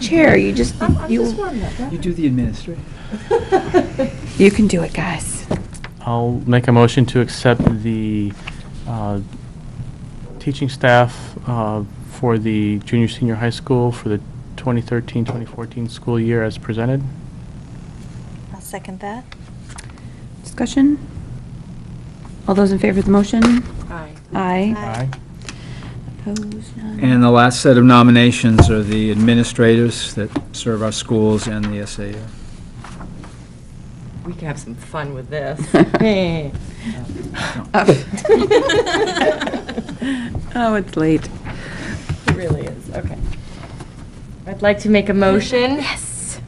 Chair, you just, I'm, I'm just you, warming up. You do the administrative. you can do it, guys. I'll make a motion to accept the uh, teaching staff uh, for the junior, senior high school for the 2013-2014 school year as presented. I'll second that. Discussion? All those in favor of the motion? Aye. Aye. Aye. Opposed? None. And the last set of nominations are the administrators that serve our schools and the SAU. We can have some fun with this. Oh, it's late. It really is, okay. I'd like to make a motion. Yes.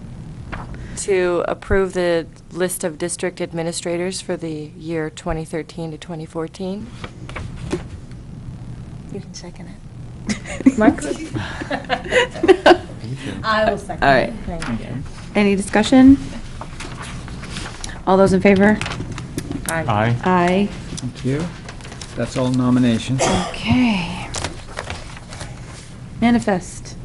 to approve the list of district administrators for the year 2013 to 2014. You can second it. Mark? I will second. All right. Thank you. Any discussion? All those in favor? Aye. Aye. Thank you. That's all nominations. Okay. Manifest.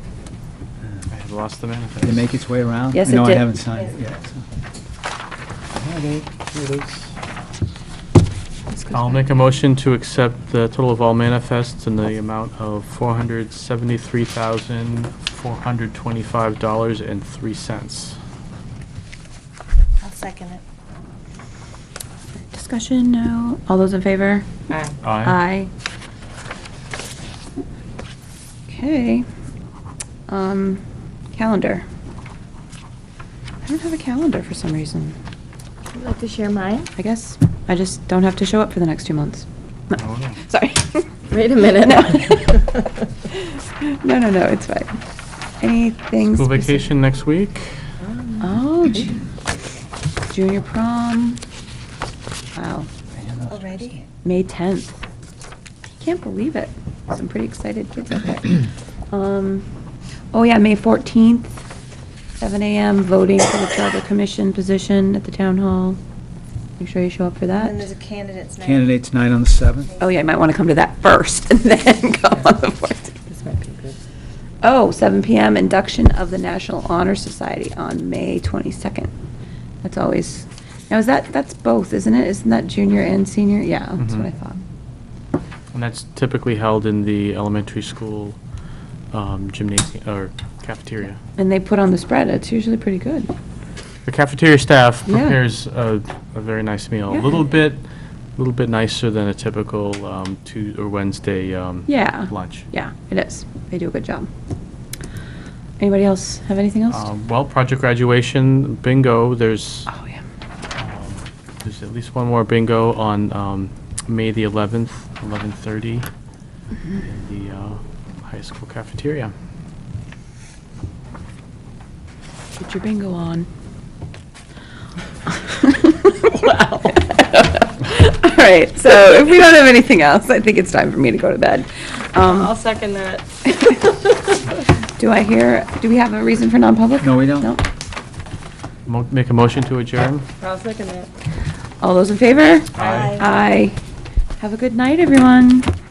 I had lost the manifest. Did it make its way around? Yes, I know it I did. haven't signed it yet. so. This goes I'll back. make a motion to accept the total of all manifests in the amount of $473,425.03. I'll second it. Discussion, no. All those in favor? Aye. Aye. Okay. Um, calendar. I don't have a calendar for some reason. Would you like to share mine? I guess I just don't have to show up for the next two months. No. Oh, no. Sorry. Wait a minute. No. No, no, no, it's fine. Anything? School speci- vacation next week. Oh, ju- junior prom. Wow, Already? May 10th. I Can't believe it. Some pretty excited kids out there. Um, oh yeah, May 14th, 7 AM, voting for the Charter Commission position at the Town Hall. Make sure you show up for that. And then there's a candidate's night. Candidates night on the 7th. Oh, yeah, you might want to come to that first and then go on the 14th. This might be good. Oh, 7 PM, induction of the National Honor Society on May 22nd. That's always, now is that, that's both, isn't it? Isn't that junior and senior? Yeah, that's what I Mhm. thought. And that's typically held in the elementary school um, gymnasium, or cafeteria. And they put on the spread, it's usually pretty good. The cafeteria staff Yeah. prepares a, a very nice meal. A Yeah. little bit, a little bit nicer than a typical um, Tuesday or Wednesday um, Yeah. lunch. Yeah, it is. They do a good job. Anybody else have anything else? Um, Well, project graduation, bingo, there's, Oh, yeah. um, there's at least one more bingo on um, May the 11th, 11:30, in the uh, high school cafeteria. Get your bingo on. Wow. All right, so if we don't have anything else, I think it's time for me to go to bed. I'll Um, second that. Do I hear, do we have a reason for non-public? No, we don't. No? Mo- Make a motion to adjourn? I'll second that. All those in favor? Aye. Aye. Have a good night, everyone.